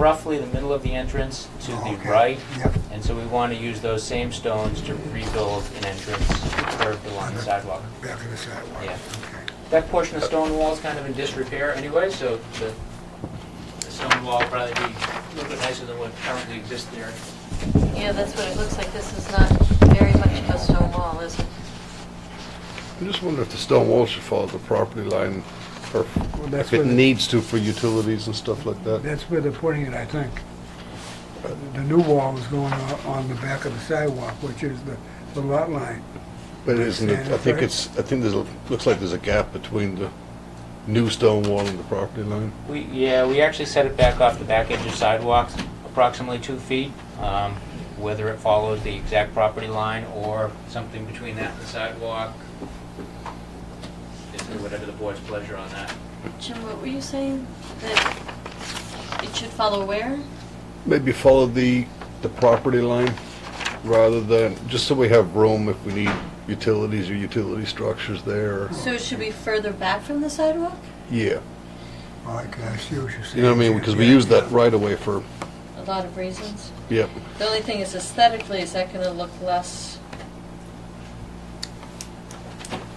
roughly the middle of the entrance to the Okay. right, Yep. and so we want to use those same stones to rebuild an entrance curved along the sidewalk. Back of the sidewalk. Yeah. Okay. That portion of the stone wall is kind of in disrepair anyway, so the, the stone wall will probably be a little bit nicer than what currently exists there. Yeah, that's what it looks like. This is not very much of a stone wall, is it? I just wonder if the stone wall should follow the property line, or that's if it where the- needs to for utilities and stuff like that. That's where they're putting it, I think. Uh, The new wall is going on on the back of the sidewalk, which is the the lot line. But isn't it, I think it's, I think there's, a looks like there's a gap between the new stone wall and the property line. We, yeah, we actually set it back off the back edge of sidewalks, approximately two feet. Um, Whether it follows the exact property line or something between that and the sidewalk, it's whatever the board's pleasure on that. Jim, what were you saying? That it should follow where? Maybe follow the, the property line rather than, just so we have room if we need utilities or utility structures there. So it should be further back from the sidewalk? Yeah, Well, I can- I see what you're saying. you know what I mean, because we use that right away for, A lot of reasons. yeah. The only thing is aesthetically, is that gonna look less?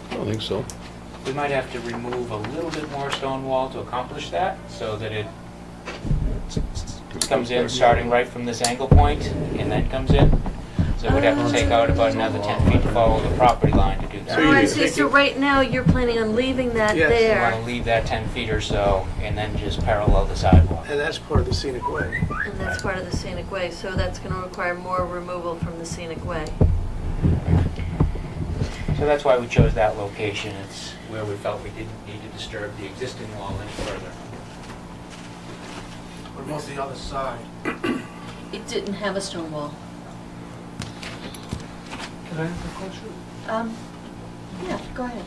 I don't think so. We might have to remove a little bit more stone wall to accomplish that, so that it comes in starting right from this angle point, and then comes in. So we'd have to take out about another 10 feet to follow the property line to do that. Oh, I see. So right now, you're planning on leaving that Yes. We want to leave that 10 feet or so, and then just parallel the sidewalk. And that's part of the scenic way. And that's part of the scenic way, so that's gonna require more removal from the scenic way. So that's why we chose that location. It's where we felt we didn't need to disturb the existing wall any further. What about the other side? It didn't have a stone wall. Can I ask a question? Um, yeah, go ahead.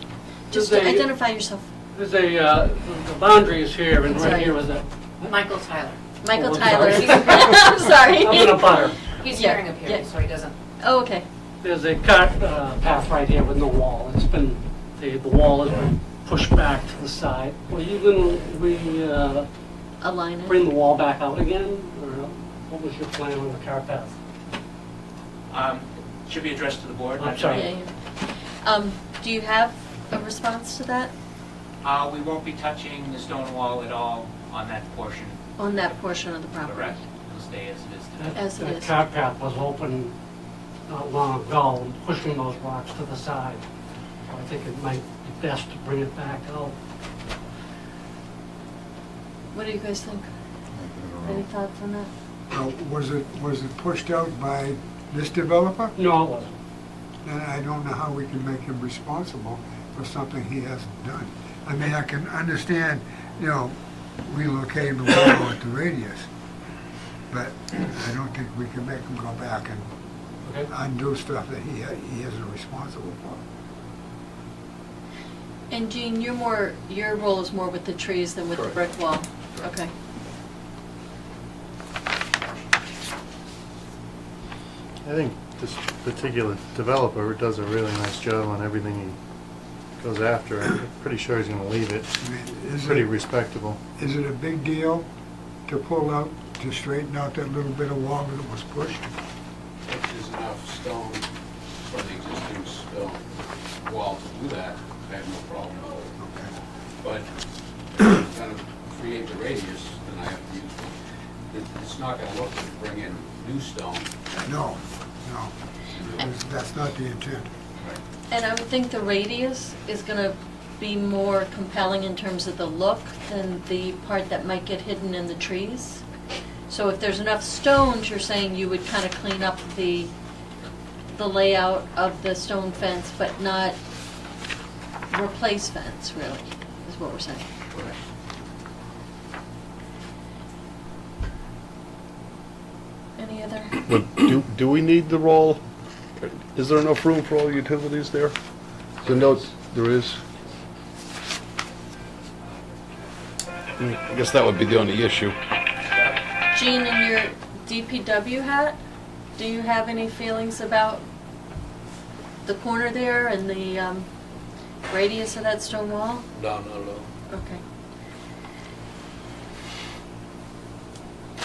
Does Just they- identify yourself. There's a, uh, the boundary is here and right here was a, Michael Tyler. Michael Oh, I'm Tyler. sorry. I'm sorry. I'm in a butter. He's Yeah, hearing yeah. appearance, so he doesn't. Oh, okay. There's a cart uh, path right here with no wall. It's been, the, the wall has been pushed back to the side. Will you then, we uh, Align it. bring the wall back out again? Or what was your plan on the cart path? Um, Should be addressed to the board. I'm sorry. Yeah, yeah. Um, do you have a response to that, Uh, We won't be touching the stone wall at all on that portion, on that portion of the property? correct? It'll stay as it is That- today. As it is. That cart path was open not long ago, and pushing those rocks to the side. So I think it might be best to bring it back out. What do you guys think? Any thoughts on that? Now, Was it, was it pushed out by this developer? No, it wasn't. Then I don't know how we can make him responsible for something he hasn't done. I mean, I can understand, you know, relocating the wall at the radius, but I don't think we can make him go back and Okay? undo stuff that he, he isn't responsible for. And Jean, you're more, your role is more with the trees than with the brick wall? Okay. I think this particular developer does a really nice job on everything he goes after. I'm pretty sure he's gonna leave it I mean, is pretty it, respectable. is it a big deal to pull out, to straighten out that little bit of wall that was pushed? There's enough stone for the existing stone wall to do that, I have no problem. Okay. But if you're gonna create the radius, then I have to use, it- it's not gonna look to bring in new stone. No, no, That's- that's not the intent. And I would think the radius is gonna be more compelling in terms of the look than the part that might get hidden in the trees. So if there's enough stones, you're saying you would kind of clean up the, the layout of the stone fence, but not replace fence, really, is what we're saying. Correct. Any other? But do, do we need the roll? Is there enough room for all the utilities there? So no, there is. I guess that would be the only issue. Jean, in your DPW hat, do you have any feelings about the corner there and the um, radius of that stone wall? No, no, no. Okay.